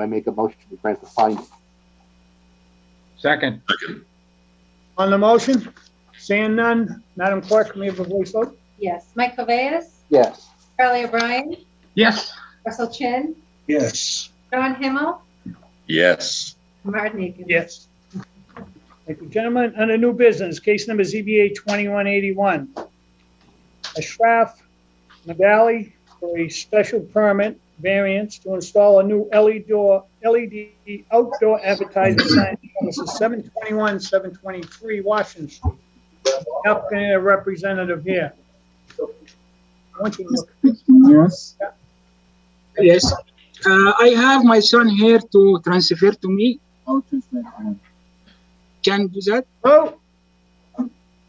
I make a motion to grant the finding. Second, Second, On the motion, seeing none, Madam Clerk, may we have a voice vote? Yes. Mike Cabeas, Yes. Charlie O'Brien, yes, Russell Chin, Yes. John Himmel, yes, Martin Akins. Yes. Thank you, gentlemen. Under new business, case number ZBA 2181. Ashraf Nagali for a special permit variance to install a new LED door, LED outdoor advertising sign. This is 721, 723 Washington Street. Applicant and a representative here. I want you to look. Yes. Yes. Uh, I have my son here to transfer to me. How to transfer? Can do that? Oh,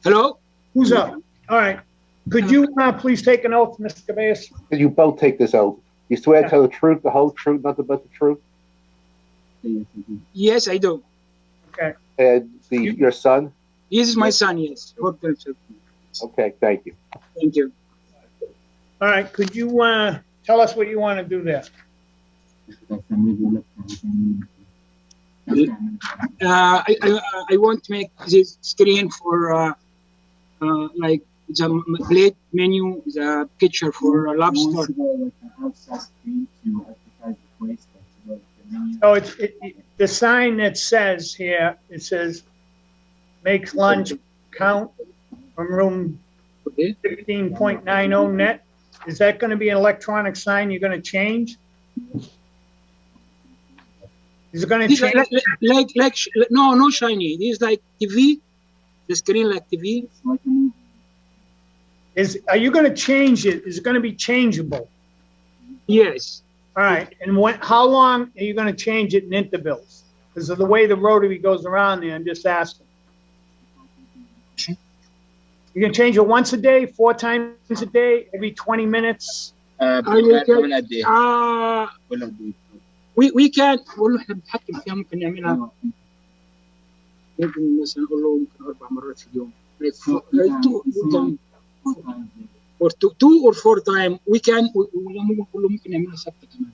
Hello? who's up? All right. Could you uh, please take an oath, Mr. Cabeas? Could you both take this oath? You swear to tell the truth, the whole truth, nothing but the truth? Yes, I do. Okay. And the, your son? This is my son, yes. For transfer. Okay, thank you. Thank you. All right, could you, uh, tell us what you want to do there? Uh, I, I, I want to make this screen for uh, uh, like the m- plate menu, the picture for a lobster. So Oh, it's, it, it- the sign that says here, it says, makes lunch count from room Okay. fifteen point nine oh net. Is that gonna be an electronic sign you're gonna change? Is it gonna This is change? like, like, like, sh- no, no shiny. This is like TV, the screen like TV. Is, are you gonna change it? Is it gonna be changeable? Yes. All right, and when, how long are you gonna change it in intervals? Because of the way the rotary goes around there, I'm just asking. You can change it once a day, four times a day, every twenty minutes? Uh, we, we can والله احنا بنتحكم فيها ممكن نعملها ممكن مثلا نقول له ممكن اربع مرات في اليوم like four, like two, Mm-hmm. two time, or two, two or four time we can ولا ممكن نقول له ممكن نعملها ثابته كمان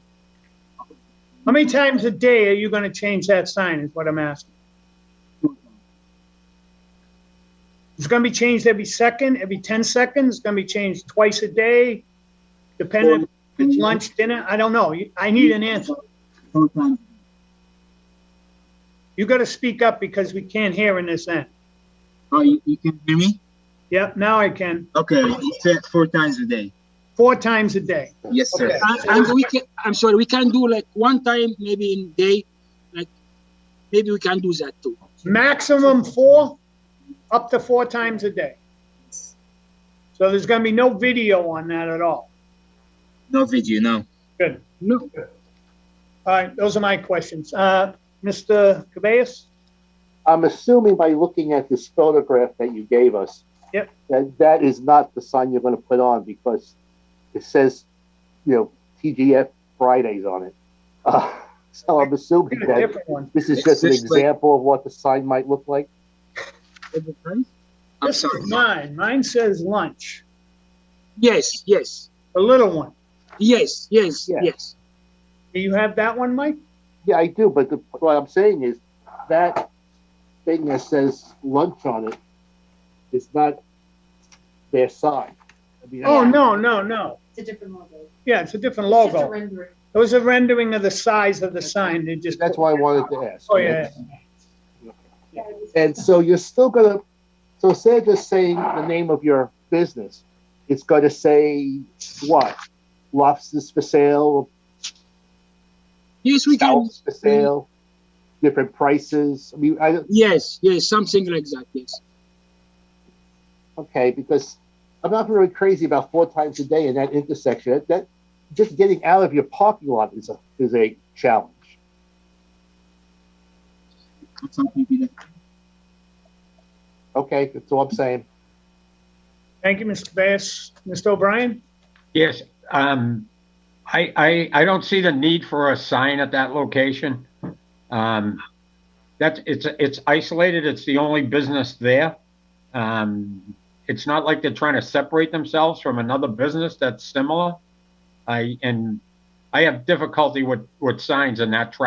How many times a day are you gonna change that sign is what I'm asking? It's gonna be changed every second, every ten seconds, it's gonna be changed twice a day, depending if it's lunch, dinner, I don't know, You- I need an answer. You gotta speak up because we can't hear in this end. Oh, you, you can hear me? Yep, now I can, Okay, you said four times a day. four times a day. Yes, sir. Okay. and, and we can I'm sorry we can do like one time maybe in day like maybe we can do that too maximum four, up to four times a day. So there's gonna be no video on that at all. No video, no. Good. no All right, those are my questions. Uh, Mr. Cabeas? I'm assuming by looking at this photograph that you gave us. Yep. That that is not the sign you're gonna put on because it says, you know, TGF Fridays on it. Uh, so I'm assuming Get a that different one. this is just an It's just like- example of what the sign might look like. every time. I'm This sorry. is mine. Mine says lunch, yes yes the little one. yes yes Yeah. yes Do you have that one, Mike? Yeah, I do, but the, what I'm saying is that thing that says lunch on it is not their sign. I mean, Oh, no, no, no. It's a different logo. Yeah, it's a different It's just a logo. rendering. It was a rendering of the size of the sign. They just. That's why I wanted to ask. Oh, yeah. Yeah, it was- And so you're still gonna, so instead of just saying the name of your business, it's gonna say what? Lobsters for sale, Yes, we can. scallops for sale, different prices. I mean, I, Yes, yes, something like that. Yes. okay, because I'm not really crazy about four times a day in that intersection. That- That just getting out of your parking lot is a is a challenge. Okay, that's all I'm saying. Thank you, Mr. Cabeas. Mr. O'Brien? yes. Um, I, I, I don't see the need for a sign at that location. Um, that's, it's, it's isolated. It's the only business there. Um, it's not like they're trying to separate themselves from another business that's similar. I, and I have difficulty with, with signs in that traffic